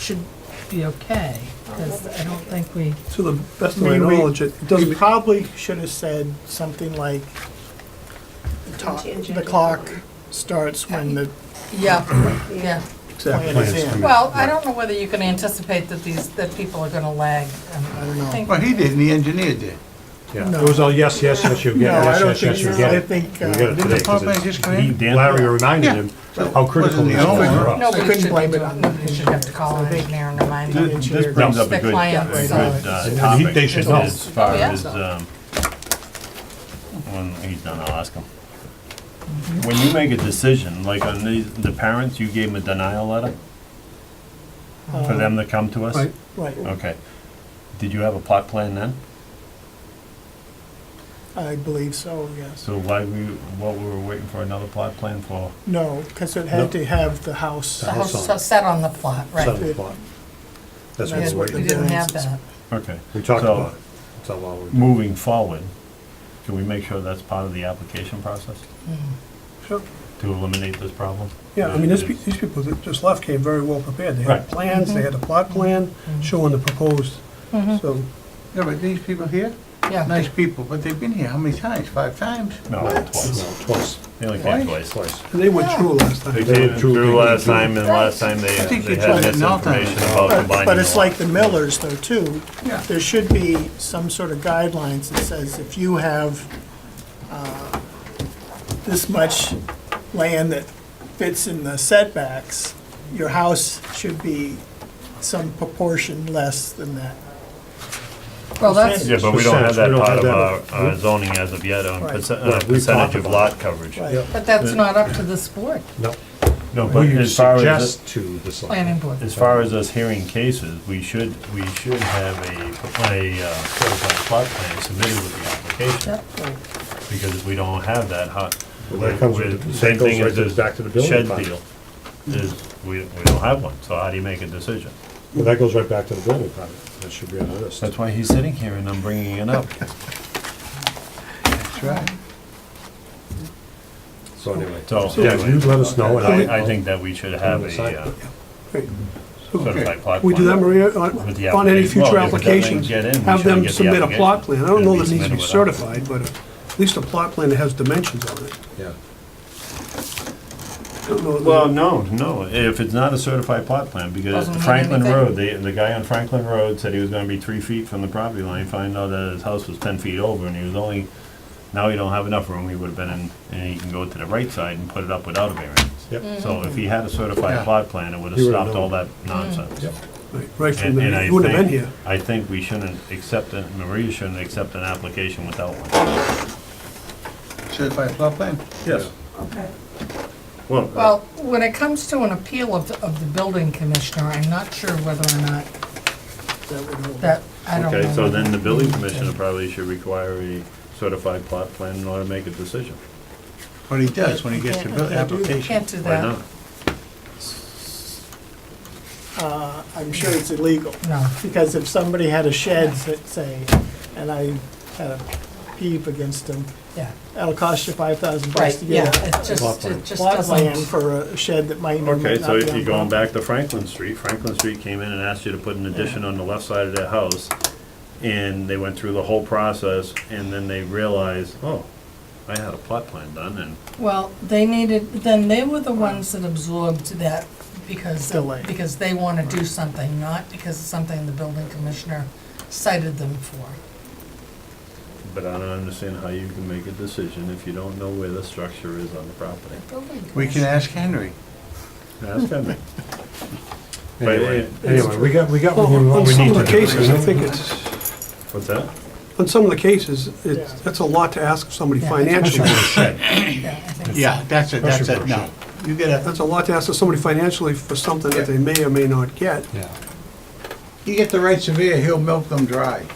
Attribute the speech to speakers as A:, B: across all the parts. A: should be okay, because I don't think we,
B: To the best of
C: I
B: my
C: mean, we-
B: knowledge, it
C: We
B: doesn't,
C: probably should have said something like, the to- the clock starts when the
A: yeah, yeah.
B: exactly.
C: plan is in.
A: Well, I don't know whether you can anticipate that these, that people are gonna lag.
C: I don't know.
D: Well, he didn't, the engineer did.
E: Yeah,
C: No.
E: it was all yes, yes, yes, you get it,
C: No, I
E: yes,
C: don't
E: yes, yes,
C: think
E: you
C: so.
E: get
C: I
E: it.
C: think, uh,
E: You get it
D: didn't
E: today,
D: the power
E: 'cause
D: plant
E: it's-
D: just come in?
E: he- Larry reminded
D: Yeah.
E: him
D: So
E: how critical
D: wasn't
E: it
D: the
E: is for
D: owner.
E: us.
C: I couldn't blame it on the
A: You should have to call an engineer and remind them.
C: Th-
F: This brings up a
A: Their
F: good,
A: clients.
F: a good uh,
E: And he-
F: topic
E: they should know.
F: as far
A: Oh, yeah.
F: as, um, when he's done, I'll ask him. When you make a decision, like on the, the parents, you gave them a denial letter for them to come to us?
B: Right.
C: uh, Right,
F: Okay. Did you have a plot plan then?
C: I believe so, yes.
F: So why we, what we were waiting for another plot plan for?
C: No, because it had to have the house.
A: The house so set on the plot, right.
E: Seven o'clock. That's
A: We
E: what
C: That's
E: we're
C: what
E: waiting
A: we
C: the
A: didn't have
C: variance is.
A: that.
F: Okay.
E: We talked
F: So,
E: about it. That's how long we.
F: Moving forward, can we make sure that's part of the application process
B: Sure.
F: to eliminate this problem?
B: Yeah, I mean, this pe- these people that just left came very well prepared. They had
F: Right.
B: plans, they had a plot plan
C: Mm-hmm.
B: showing the proposed, so,
D: Yeah, but these people here,
A: Yeah,
D: nice people, but they've been here how many times? Five times?
F: No, twice.
E: No, Twice,
F: They only came twice.
E: twice.
B: and they went through last
F: They
B: time.
F: did it
E: True,
F: through
E: true,
F: last
E: true.
F: time, and last time they,
D: I think
F: they
D: you
F: had
D: tried it now,
F: misinformation
D: Tom.
F: about
C: But,
F: combining.
C: but it's
F: the
C: like the
F: lots.
C: millers though, too.
D: Yeah.
C: There should be some sort of guidelines that says if you have, uh, this much land that fits in the setbacks, your house should be some proportion less than that.
A: well, that's,
F: Yeah, but we don't have that
E: Percentage, we don't
F: part
E: have
F: of our
E: that.
F: our zoning as of yet on
C: Right.
F: perce-
E: Right, we
F: uh,
E: talked
F: percentage of
E: about
F: lot coverage.
C: Right.
A: but that's not up to this board,
E: No.
F: No, but
E: We
F: as far as,
E: suggest to the
A: planning
E: selectmen.
A: board.
F: as far as us hearing cases, we should, we should have a, a uh, certified plot plan submitted with the application.
A: Yep.
F: Because if we don't have that, how?
E: Well, that comes with- that
F: Same
E: goes
F: thing as
E: right to-
F: this
E: back to the building
F: shed
E: department.
F: deal, is we, we don't have one, so how do you make a decision?
E: Well, that goes right back to the building department. That should be on the list.
F: That's why he's sitting here and I'm bringing it up.
D: That's right.
E: So anyway.
F: So,
E: Yeah, you let us know
F: But
E: and I.
F: I, I think that we should have a uh,
B: Great.
F: certified plot plan.
B: We do that, Maria, on
F: With the
B: on any
F: application.
B: future
F: Well, if it doesn't
B: applications,
F: get in, we
B: have
F: should
B: them
F: get the
B: submit a plot plan.
F: application.
B: I don't know
F: It'll
B: that
F: be
B: it needs to be
F: submitted without-
B: certified, but at least a plot plan that has dimensions on it.
E: Yeah.
B: I don't know that-
F: Well, no, no, if it's not a certified plot plan, because
A: Doesn't mean
F: Franklin
A: anything.
F: Road, the, the guy on Franklin Road said he was gonna be three feet from the property line, find out that his house was ten feet over, and he was only, now he don't have enough room, he would've been in, and he can go to the right side and put it up without a variance.
E: Yep.
F: So if he had a certified
D: Yeah.
F: plot plan, it would've
E: He would've
F: stopped all that
E: known.
F: nonsense.
E: Yep.
B: Right, Right from
F: And, and
B: there.
F: I
B: You wouldn't have been
F: think,
B: here.
F: I think we shouldn't accept, it. Maria shouldn't accept an application without one.
D: Certified plot plan.
F: Yes.
A: Well, when it comes to an appeal of, of the building commissioner, I'm not sure whether or not
C: That would hold.
A: that, I don't know.
F: Okay, so then the building commissioner probably should require a certified plot plan in order to make a decision.
D: What he does when he gets the
A: Can't-
D: bill- application.
A: Can't do
F: Why
A: that,
F: not?
C: Uh, I'm sure it's illegal.
A: no.
C: Because if somebody had a shed, s- say, and I had a peep against them,
A: Yeah,
C: that'll cost you five thousand bucks
A: right,
C: to
A: yeah,
C: get a
A: it just, it just
C: plot plan
A: doesn't,
C: for a shed that might or
F: Okay,
C: might
F: so
C: not
F: if you're
C: be
F: going
C: on
F: back to Franklin Street, Franklin Street came in and asked you to put an addition on the left side of their house, and they went through the whole process, and then they realized, oh, I had a plot plan done, and
A: well, they needed, then they were the ones that absorbed that because,
C: Delay.
A: because they want to do something, not because it's something the building commissioner cited them for.
F: but I don't understand how you can make a decision if you don't know where the structure is on the property.
A: Building
D: We can
A: commissioner.
D: ask Henry.
F: That's coming.
E: Anyway, anyway, we got, we got what we
B: On
E: what we
B: some
E: need
B: of
E: to
B: the
E: do.
B: cases, I think it's,
F: What's that?
B: on some of the cases, it's,
C: Yeah.
B: that's a lot to ask of somebody
A: Yeah.
B: financially.
A: Yeah, I think so.
D: Yeah, that's it, that's it,
E: Pressure
D: no. You gotta,
B: That's a lot to ask of somebody financially for something that they may or may not get.
E: Yeah.
D: you get the right surveyor, he'll milk them dry.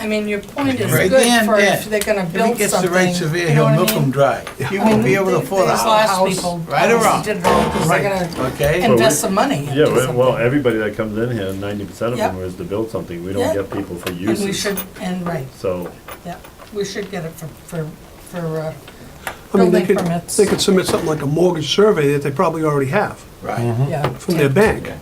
A: I mean, your point is
D: Right
A: good
D: then,
A: for
D: then.
A: if they're gonna
D: If he
A: build
D: gets the
A: something,
D: right surveyor,
A: you know
D: he'll
A: what I
D: milk them
A: mean?
D: dry. You won't be able to afford a
A: These
D: ho-
A: last
D: house,
A: people
D: right or wrong,
A: Did it all, 'cause they're gonna
D: okay?
A: invest some money. into
F: Yeah, well- well,
A: something.
F: everybody that comes in here, ninety percent of them
A: Yep.
F: is to build something, we
A: Yeah.
F: don't get people for
A: And we
F: uses,
A: should, and right,
F: so.
A: yeah, we should get it for, for, for, uh,
B: I mean, they
A: Building
B: could,
A: permits. Mm-hmm.
B: they could submit something like a mortgage survey that they probably already have
D: Right.
A: yeah.
B: from their bank.